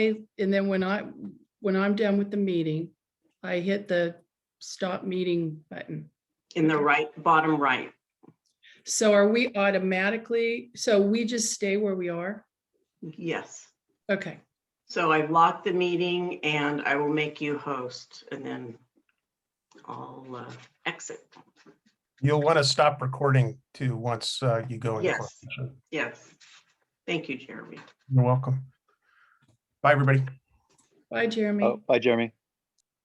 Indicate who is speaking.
Speaker 1: And then when I, when I'm done with the meeting, I hit the stop meeting button.
Speaker 2: in the right, bottom right.
Speaker 1: So are we automatically, so we just stay where we are?
Speaker 2: Yes.
Speaker 1: Okay,
Speaker 2: So I've locked the meeting and I will make you host and then I'll uh, exit.
Speaker 3: You'll want to stop recording too, once uh, you go. into
Speaker 2: Yes.
Speaker 3: closed session.
Speaker 2: Yes. Thank you, Jeremy.
Speaker 3: You're welcome. Bye, everybody.
Speaker 1: bye, Jeremy.
Speaker 4: Oh, bye, Jeremy.